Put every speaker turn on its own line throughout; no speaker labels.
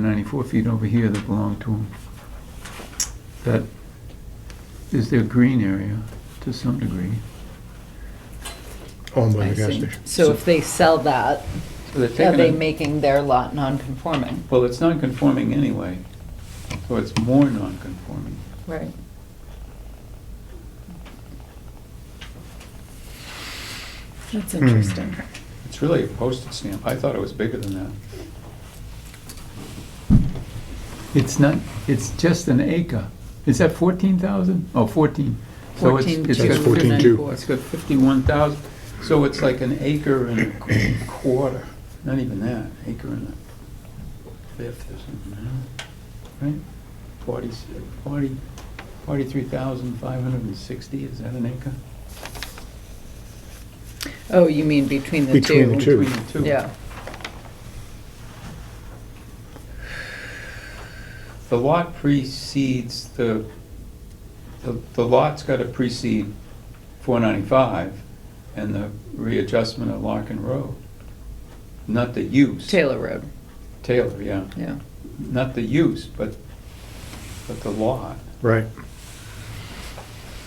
24 feet over here that belong to them. That is their green area to some degree.
owned by
I
the gas
see.
station.
So if they sell that,
So they're
are
taking
they
a-
making their lot non-conforming?
Well, it's non-conforming anyway, so it's more non-conforming.
Right. That's
Hmm.
interesting.
It's really a postage stamp. I thought it was bigger than that. It's not, it's just an acre. Is that 14,000? Oh, 14. So it's- it's got
14,294.
50 It's got 51,000, so it's like an acre and a qu- quarter, not even that, acre and a fifth or something, huh? right? 40, 40 43,560, is that an acre?
Oh, you mean between the two?
Between the Two.
Between the two.
Yeah,
The lot precedes the, the- the lot's got to precede 495 and the readjustment of Larkin Road, not the use.
Taylor Road,
Taylor, yeah,
yeah.
not the use, but, but the lot.
Right.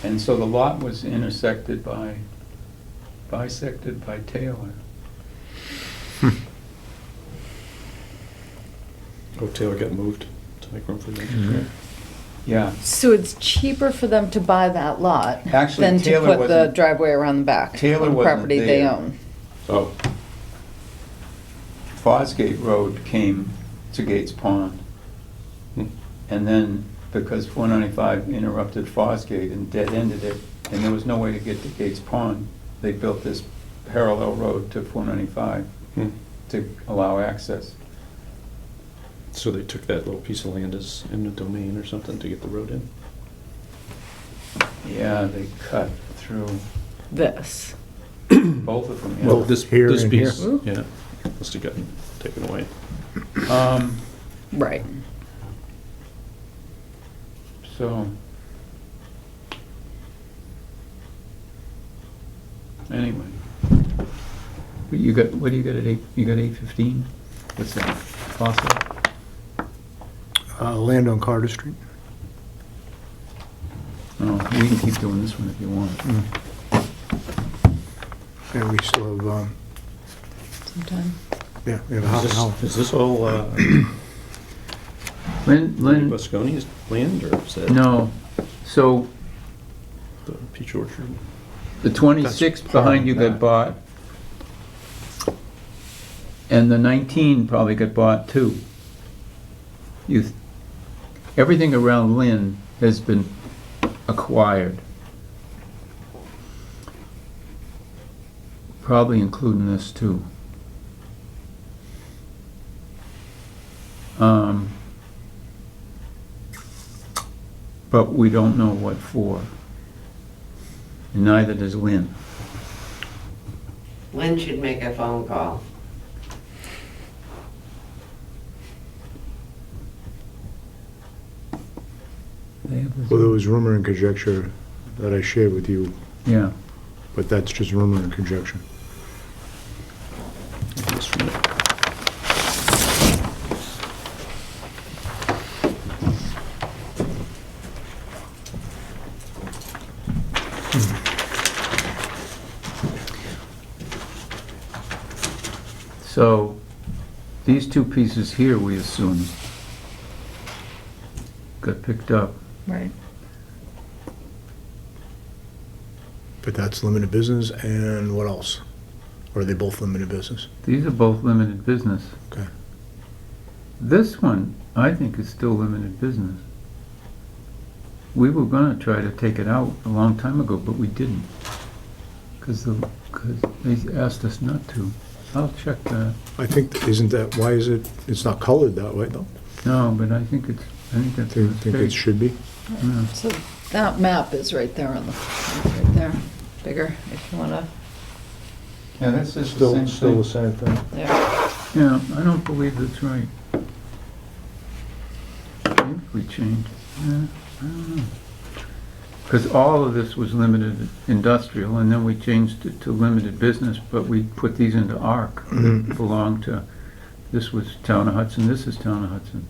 And so the lot was intersected by, bisected by Taylor.
Hmm.
Oh, Taylor got moved to make room for
Mhm.
you.
Yeah,
So it's cheaper for them to buy that lot
Actually,
than to
Taylor
put the
wasn't-
driveway around the back?
Taylor
on
wasn't
Property they
there.
own.
Oh,
Fosgate Road came to Gates Pond.
Hmm.
And then, because 495 interrupted Fosgate and dead-ended it, and there was no way to get to Gates Pond, they built this parallel road to 495
Hmm.
to allow access.
so they took that little piece of land as eminent domain or something to get the road in?
Yeah, they cut through
This,
both of them. yeah.
Well,
this
here
this
and here.
piece, Yeah, must have gotten taken away.
Um,
right.
So. Anyway. You got, what do you got at eight, you got eight fifteen? What's that, fossil?
Uh, Land on Carter Street.
Oh, we can keep doing this one if you want.
Hmm. And we still have, um,
Sometime.
yeah, we have a half
Is
an hour.
this- Is this all uh,
Lynn, Lynn,
Busconi's land or is that
no, so
the peach orchard?
the twenty-six
That's part
behind you
of
got
that.
bought. And the nineteen probably got bought too. You, th- everything around Lynn has been acquired. Probably including this too. Um, But we don't know what for. And Neither does Lynn.
Lynn should make a phone call.
Well, there was rumor and conjecture that I shared with you,
Yeah,
but that's just rumor and conjecture.
This from it.
so these two pieces here, we assume, got picked up.
Right.
But that's limited business and what else? Or are they both limited business?
These are both limited business.
Okay.
This one, I think, is still limited business. We were gonna try to take it out a long time ago, but we didn't. Cause the, cause they asked us not to. I'll check that.
I think, isn't that, why is it, it's not colored that way though?
No, but I think it's, I think
I
that's a
think, I think it
mistake.
should be.
Yeah.
So that map is right there on the, right there, bigger, if you wanna,
Yeah, that's just
same thing.
yeah.
Yeah, I don't believe that's right. Maybe we changed, yeah, I don't know. Because all of this was limited industrial, and then we changed it to limited business, but we put these into ARC, that belong to, this was Town of Hudson, this is Town of Hudson.